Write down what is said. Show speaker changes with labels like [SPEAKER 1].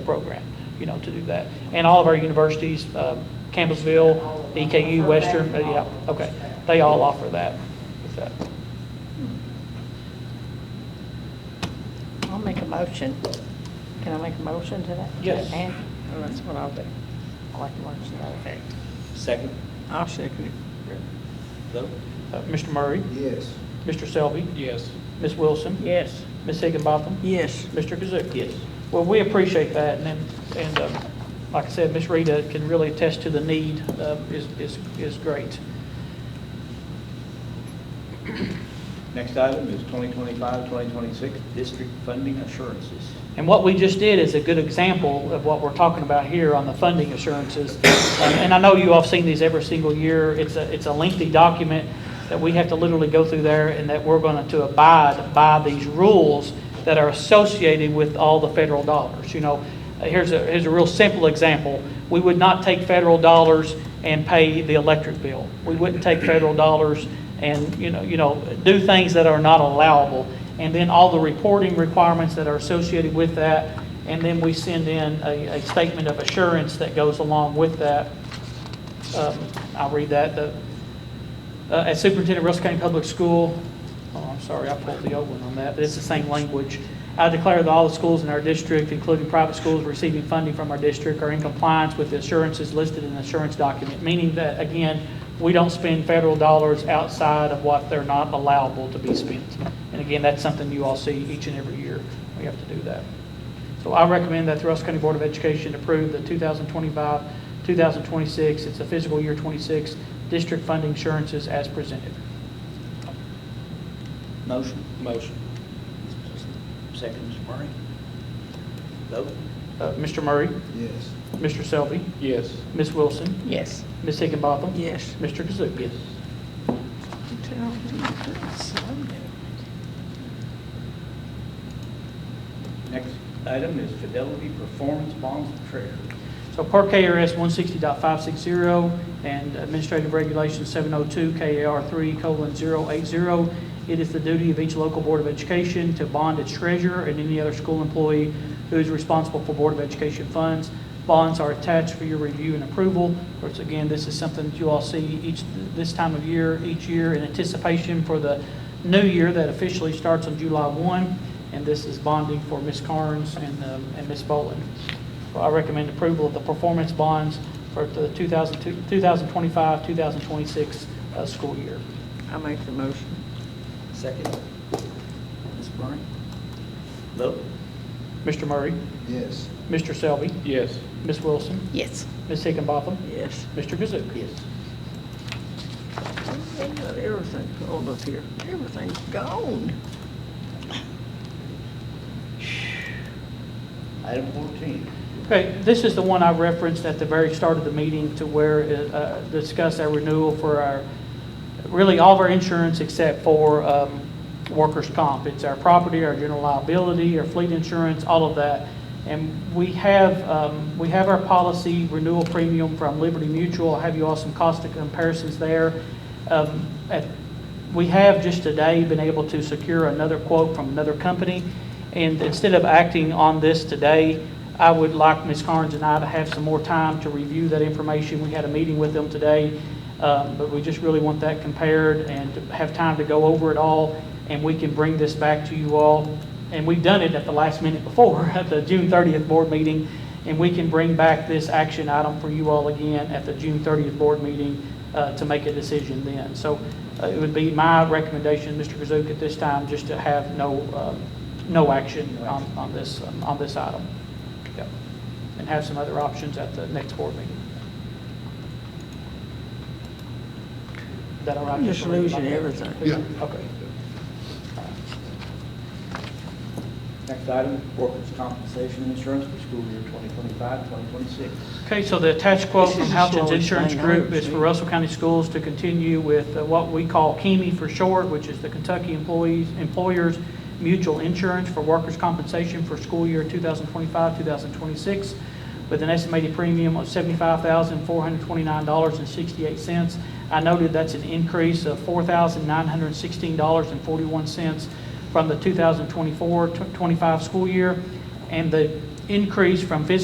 [SPEAKER 1] program, you know, to do that. And all of our universities, um, Campbellsville, EKU, Western, uh, yeah, okay, they all offer that. with that.
[SPEAKER 2] I'll make a motion. Can I make a motion to that?
[SPEAKER 1] Yes.
[SPEAKER 2] Okay. Well, That's what I'll do. I like to watch that effect.
[SPEAKER 3] Second.
[SPEAKER 2] I'll second it.
[SPEAKER 3] Vote.
[SPEAKER 1] Uh, Mr. Murray,
[SPEAKER 4] Yes.
[SPEAKER 1] Mr. Selby,
[SPEAKER 3] Yes.
[SPEAKER 1] Ms. Wilson,
[SPEAKER 2] Yes.
[SPEAKER 1] Ms. Higginbotham,
[SPEAKER 2] Yes.
[SPEAKER 1] Mr. Kazook.
[SPEAKER 3] Yes.
[SPEAKER 1] Well, we appreciate that, and, then- and um, like I said, Ms. Rita can really attest to the need uh, is, is, is great.
[SPEAKER 3] Next item is 2025-2026 district funding assurances.
[SPEAKER 1] And what we just did is a good example of what we're talking about here on the funding assurances. Um, And I know you all have seen these every single year. It's a, it's a lengthy document that we have to literally go through there and that we're going to abide by these rules that are associated with all the federal dollars. You know, uh, here's a, here's a real simple example. We would not take federal dollars and pay the electric bill. We wouldn't take federal dollars and, you know, you know, do things that are not allowable. And then all the reporting requirements that are associated with that. And then we send in a, a statement of assurance that goes along with that. Um, I'll read that. The, uh, As superintendent of Russell County Public School, oh, I'm sorry, I pulled the old one on that, but it's the same language. I declare that all the schools in our district, including private schools receiving funding from our district, are in compliance with the assurances listed in the assurance document, meaning that, again, we don't spend federal dollars outside of what they're not allowable to be spent. And again, that's something you all see each and every year. We have to do that. So I recommend that the Russell County Board of Education approve the 2025, 2026, it's a fiscal year 26, district funding assurances as presented.
[SPEAKER 3] Motion. Motion. Second, Mr. Murray. Vote.
[SPEAKER 1] Uh, Mr. Murray,
[SPEAKER 4] Yes.
[SPEAKER 1] Mr. Selby,
[SPEAKER 3] Yes.
[SPEAKER 1] Ms. Wilson,
[SPEAKER 2] Yes.
[SPEAKER 1] Ms. Higginbotham.
[SPEAKER 2] Yes.
[SPEAKER 1] Mr. Kazook. Yes.
[SPEAKER 3] Next item is fidelity performance bonds of treasury.
[SPEAKER 1] So per KRS 160.560 and Administrative Regulation 702 KAR 3:080, it is the duty of each local Board of Education to bond its treasurer and any other school employee who is responsible for Board of Education funds. Bonds are attached for your review and approval. Of course, again, this is something that you all see each, this time of year, each year in anticipation for the new year that officially starts on July 1. And this is bonding for Ms. Carnes and um, and Ms. Boland. I recommend approval of the performance bonds for the 2025, 2026 uh, school year.
[SPEAKER 2] I make the motion.
[SPEAKER 3] Second. Mr. Murray. Vote.
[SPEAKER 1] Mr. Murray,
[SPEAKER 4] Yes.
[SPEAKER 1] Mr. Selby,
[SPEAKER 3] Yes.
[SPEAKER 1] Ms. Wilson,
[SPEAKER 2] Yes.
[SPEAKER 1] Ms. Higginbotham,
[SPEAKER 2] Yes.
[SPEAKER 1] Mr. Kazook.
[SPEAKER 3] Yes.
[SPEAKER 2] They got Everything pulled up here. Everything's gone.
[SPEAKER 3] Item 14.
[SPEAKER 1] Okay, this is the one I referenced at the very start of the meeting to where it uh, discussed our renewal for our, really all of our insurance except for um, workers' comp. It's our property, our general liability, our fleet insurance, all of that. And we have, um, we have our policy renewal premium from Liberty Mutual. I have you all some cost of comparisons there. Um, At we have just today been able to secure another quote from another company, and instead of acting on this today, I would like Ms. Carnes and I to have some more time to review that information. We had a meeting with them today, um, but we just really want that compared and to have time to go over it all, and we can bring this back to you all. And we've done it at the last minute before, at the June 30th board meeting, and we can bring back this action item for you all again at the June 30th board meeting uh, to make a decision then. So uh, it would be my recommendation, Mr. Kazook, at this time, just to have no, um, no action on, on this, um, on this item. Yep. And have some other options at the next board meeting. Is that all right?
[SPEAKER 2] I'm just
[SPEAKER 1] Mr. Lee?
[SPEAKER 2] losing everything.
[SPEAKER 4] Yeah.
[SPEAKER 1] Okay.
[SPEAKER 3] Next item, workers' compensation insurance for school year 2025-2026.
[SPEAKER 1] Okay, so the attached quote
[SPEAKER 2] This
[SPEAKER 1] from
[SPEAKER 2] is the
[SPEAKER 1] Houghton's
[SPEAKER 2] slowest
[SPEAKER 1] Insurance
[SPEAKER 2] thing I
[SPEAKER 1] Group
[SPEAKER 2] ever
[SPEAKER 1] is for
[SPEAKER 2] seen.
[SPEAKER 1] Russell County Schools to continue with uh, what we call KEMI for short, which is the Kentucky Employees, Employers Mutual Insurance for Workers' Compensation for school year 2025, 2026, with an estimated premium of $75,429.68. I noted that's an increase of $4,916.41 from the 2024, 25 school year. And the increase from fiscal